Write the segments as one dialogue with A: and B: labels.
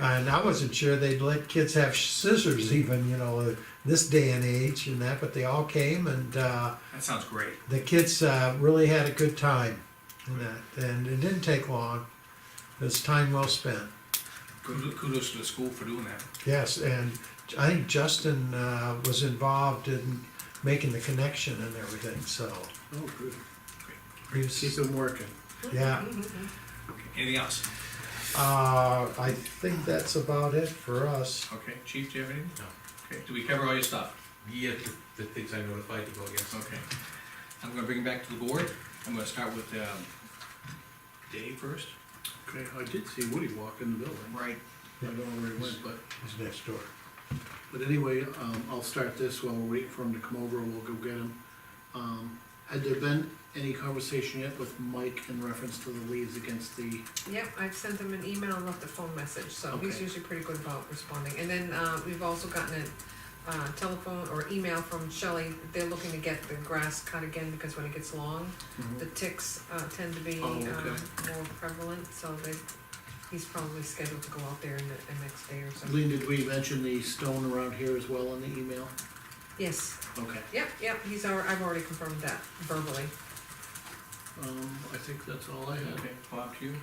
A: And I wasn't sure they'd let kids have scissors even, you know, uh, this day and age and that, but they all came and, uh,
B: That sounds great.
A: the kids, uh, really had a good time in that, and it didn't take long. It was time well spent,
B: Kudos kudos to the school for doing that.
A: yes, and I think Justin, uh, was involved in making the connection and everything, so.
C: Oh, good.
A: he
C: She's
A: was-
C: been working.
A: Yeah,
B: Anything else?
A: uh, I think that's about it for us.
B: Okay, chief, do you have anything?
D: No.
B: Okay, do we cover all your stuff?
D: Yeah, the, the things I notified you about, yes.
B: Okay. I'm gonna bring it back to the board. I'm gonna start with, um, Dave first.
C: Okay, I did see Woody walk in the building.
B: Right.
C: I don't know where he went, but,
A: He's next door.
C: but anyway, um, I'll start this while we're waiting for him to come over, we'll go get him. Um, had there been any conversation yet with Mike in reference to the leaves against the,
E: Yep, I've sent him an email and left a phone message, so he's
C: Okay.
E: usually pretty good about responding. And then, uh, we've also gotten a, uh, telephone or email from Shelley, they're looking to get the grass cut again, because when it gets long, the ticks, uh, tend to be,
C: Mm-hmm. Oh,
E: um,
C: okay.
E: more prevalent, so they, he's probably scheduled to go out there in the, the next day or so.
C: Lean, did we mention the stone around here as well in the email?
E: Yes,
C: Okay,
E: yep, yep, he's, al- I've already confirmed that verbally.
C: um, I think that's all I had.
B: Okay, Bob, to you?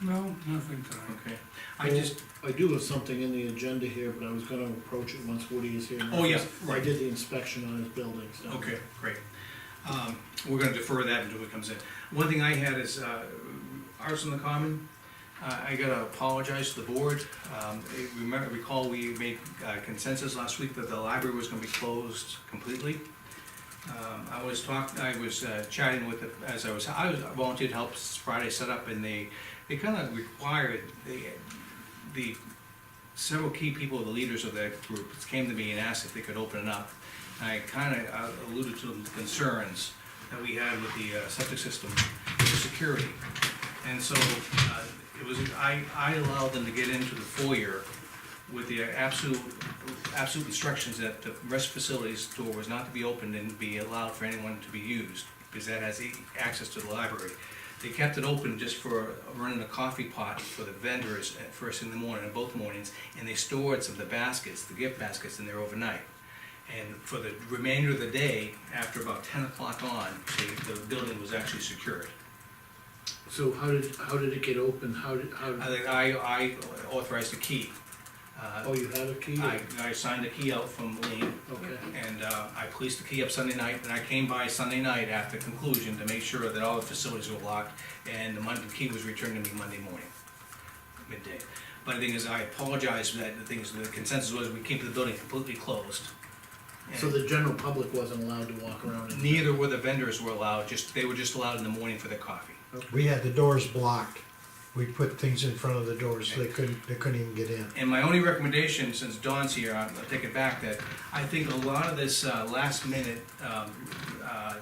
F: No, nothing tonight.
B: Okay. I just,
C: I do have something in the agenda here, but I was gonna approach it once Woody is here.
B: Oh, yeah,
C: I
B: right.
C: did the inspection on his building, so.
B: Okay, great. Um, we're gonna defer that until it comes in. One thing I had is, uh, ours on the common, uh, I gotta apologize to the board. Um, if you remember, recall we made uh, consensus last week that the library was gonna be closed completely. Um, I was talking, I was uh, chatting with, the- as I was, I was I volunteered to help Friday set up and they, they kinda required, the the several key people, the leaders of that group, came to me and asked if they could open it up. And I kind of alluded to the concerns that we had with the uh, septic system, the security. And so uh, it was, I, I allowed them to get into the foyer with the absolute, absolute instructions that the rest facilities door was not to be opened and be allowed for anyone to be used, because that has e- access to the library. They kept it open just for running a coffee pot for the vendors at first in the morning, both mornings, and they stored some of the baskets, the gift baskets in there overnight. And for the remainder of the day, after about ten o'clock on, the, the building was actually secured.
C: So how did, how did it get open? How did, how,
B: I,
C: did-
B: think I I authorized a key. Uh,
C: oh, you had a key?
B: I, I signed the key out from Lean,
C: Okay.
B: and, uh, I policed the key up Sunday night, and I came by Sunday night after conclusion to make sure that all the facilities were locked, and the Monday, the key was returned to me Monday morning, midday. But the thing is, I apologize for that, the thing is, the consensus was we keep the building completely closed.
C: So the general public wasn't allowed to walk around
B: And
C: in?
B: Neither were the vendors were allowed, just, they were just allowed in the morning for their coffee.
A: We had the doors blocked. We put things in front of the doors so they couldn't, they couldn't even get in.
B: And my only recommendation, since Dawn's here, I'll I'll take it back, that I think a lot of this uh, last minute um, uh,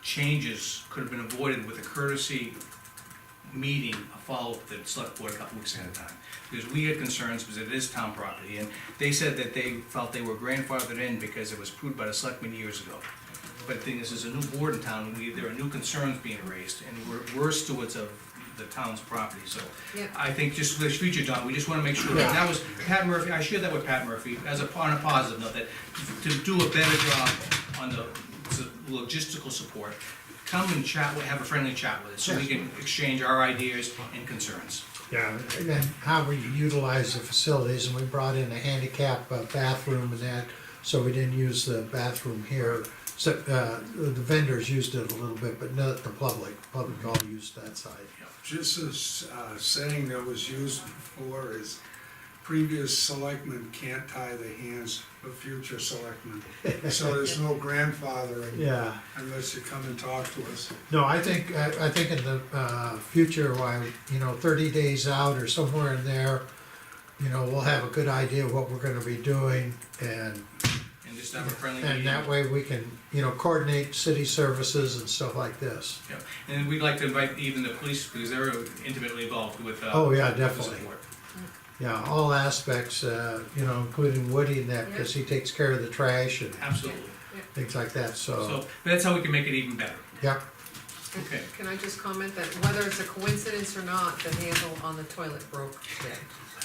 B: changes could have been avoided with a courtesy meeting, a follow-up that select board a couple weeks ahead of time. Because we had concerns, because it is town property, and they said that they felt they were grandfathered in because it was approved by the selectmen years ago. But the thing is, there's a new board in town, we, there are new concerns being raised, and we're, we're stewards of the town's property, so.
E: Yeah.
B: I think just for the future, Don, we just wanna make sure, that that was, Pat Murphy, I shared that with Pat Murphy, as a, on a positive note, that to do a better job on the s- logistical support, come and chat, with- have a friendly chat with us, so we can exchange our ideas and concerns.
A: Yeah. And then how we utilize the facilities, and we brought in a handicap uh, bathroom and that, so we didn't use the bathroom here. So, uh, the vendors used it a little bit, but not the public, public all used that side.
G: Just as uh, saying that was used before is previous selectmen can't tie the hands of future selectmen. So there's no grandfathering
A: Yeah,
G: unless you come and talk to us.
A: no, I think, I, I think in the, uh, future, why, you know, thirty days out or somewhere in there, you know, we'll have a good idea what we're gonna be doing and
B: And just have a friendly meeting.
A: And that way we can, you know, coordinate city services and stuff like this.
B: Yeah. And we'd like to invite even the police, because they're intimately involved with, uh.
A: Oh, yeah,
B: the
A: definitely.
B: support.
A: Yeah, all aspects, uh, you know, including Woody and that, because he takes care of the trash and
B: Absolutely.
A: things like that, so,
B: So, that's how we can make it even better.
A: yeah.
B: Okay.
E: Can I just comment that whether it's a coincidence or not, the handle on the toilet broke today?